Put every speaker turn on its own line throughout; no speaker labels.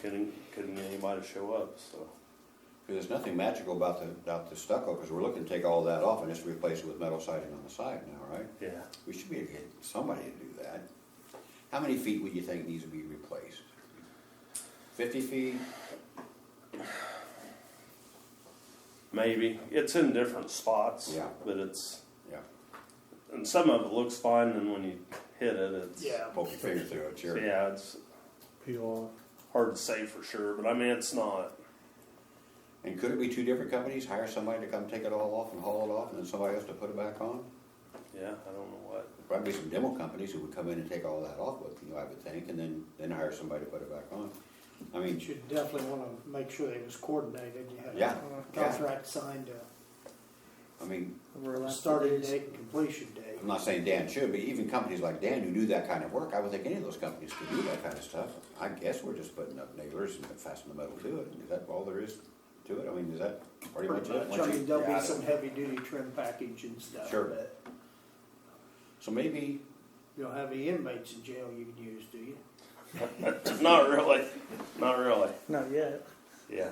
couldn't, couldn't anybody show up, so.
Because there's nothing magical about the, about the stucco, because we're looking to take all that off and just replace it with metal siding on the side now, right?
Yeah,
We should be able to get somebody to do that. How many feet would you think needs to be replaced? Fifty feet?
maybe. It's in different spots.
Yeah.
But it's,
Yeah,
and some of it looks fine, and when you hit it, it's.
Yeah.
poke your finger through it,
so
sure.
Yeah, it's
Peel off.
hard to say for sure, but I mean, it's not.
And could it be two different companies, hire somebody to come take it all off and haul it off, and then somebody else to put it back on?
Yeah, I don't know what.
There'd Probably some demo companies who would come in and take all that off with, you know, I would think, and then, then hire somebody to put it back on. I mean,
You should definitely wanna make sure that it was coordinated, you had
Yeah,
a
yeah.
contract signed, uh,
I mean,
starting date and completion date.
I'm not saying Dan should, but even companies like Dan who do that kind of work, I would think any of those companies could do that kind of stuff. I guess we're just putting up nailers and fastening the metal to it. Is that all there is to it? I mean, is that pretty much it?
I
Once you-
mean, there'll
yeah, I
be
don't-
some heavy duty trim package and stuff,
Sure.
but
So maybe,
you don't have any inmates in jail you can use, do you?
Not really. Not really.
Not yet.
Yeah.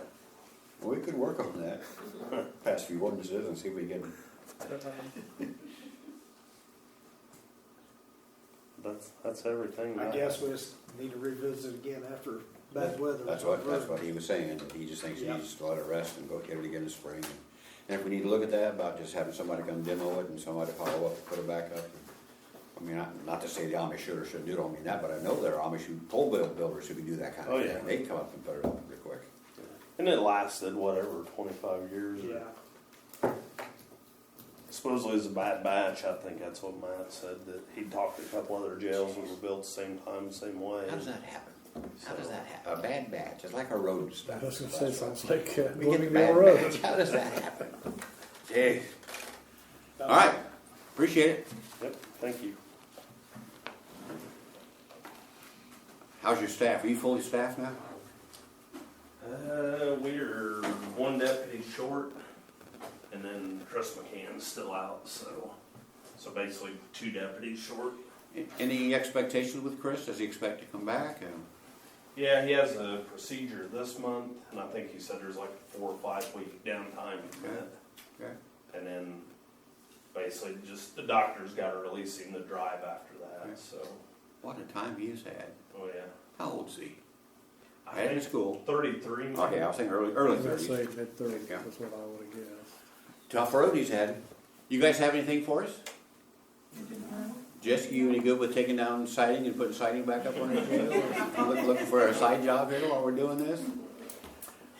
well, we could work on that, pass a few ordinances and see if we can,
um,
That's that's everything.
I
that-
guess we just need to revisit again after bad weather.
that's what, that's what he was saying, that he just thinks he needs to let it rest and go get it again in the spring. And if we need to look at that, about just having somebody come demo it and somebody follow up, put it back up. I mean, not, not to say the Amish should or shouldn't do it, I don't mean that, but I know there are Amish who, pole buil- builders who can do that kind
Oh,
of
yeah.
thing. They come up and put it up real quick.
And it lasted whatever twenty five years.
Yeah,
Supposedly it was a bad batch. I think that's what Matt said that he talked to a couple other jails that were built the same time, same way.
How does that happen? How does that happen? A bad batch, it's like a road stop.
That's gonna say sounds like uh,
We get the
Blooming Hill
bad
Road.
batch, how does that happen? Gee. All right, appreciate it.
Yep. Thank you.
How's your staff? Are you fully staffed now?
Uh, we're one deputy short, and then Chris McCann's still out. So, so basically two deputies short.
Any expectations with Chris? Does he expect to come back? Uh,
Yeah, he has a procedure this month, and I think he said there's like a four or five week downtime from
Okay.
that.
Okay.
And then basically just the doctor's gotta release him to drive after
Okay.
that, so,
What a time he has had.
oh yeah.
How old's he?
I
Had in
think
school.
thirty-three.
Okay, I was thinking early, early
I'd say
thirties.
mid thirties
Yeah.
is what I would have guessed.
Tough road he's had. You guys have anything for us? Jessica, you any good with taking down siding and putting siding back up on it? You look- Looking for a side job here while we're doing this?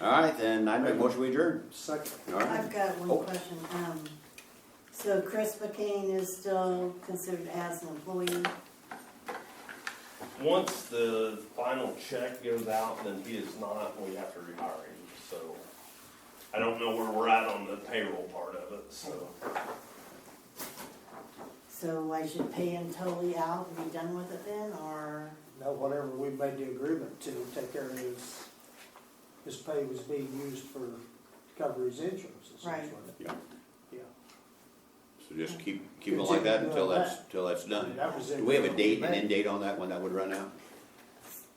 All right, then I make a motion we adjourn.
second.
All right.
I've got
Oh.
one question. Um, so Chris McCain is still considered as an employee?
Once the final check goes out, then he is not, we have to rehire him, so. I don't know where we're at on the payroll part of it, so.
So I should pay him totally out and be done with it then, or?
Now, whatever we made the agreement to take care of his, his pay was being used for to cover his insurance essentially.
Yeah.
Yeah.
So just keep, keep it like that until that's, till that's done.
That was in-
Do we have a date, an end date on that one that would run out?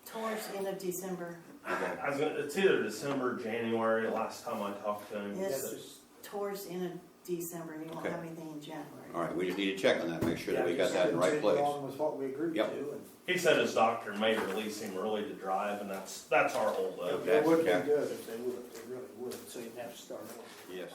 Towards the end of December,
I was gonna, it's either December, or January, last time I talked to him.
Yeah,
Yes.
just-
towards the end of December, he won't
Okay.
have anything in January.
All right, we just need to check on that, make sure that we
yeah,
got
just
that in the right
continue
place.
Along with what we agreed to
Yep.
and.
He said his doctor may release him early to drive, and that's, that's our holdup.
It would be
Okay.
good if they would, they really would, so you'd have to start over.
Yes.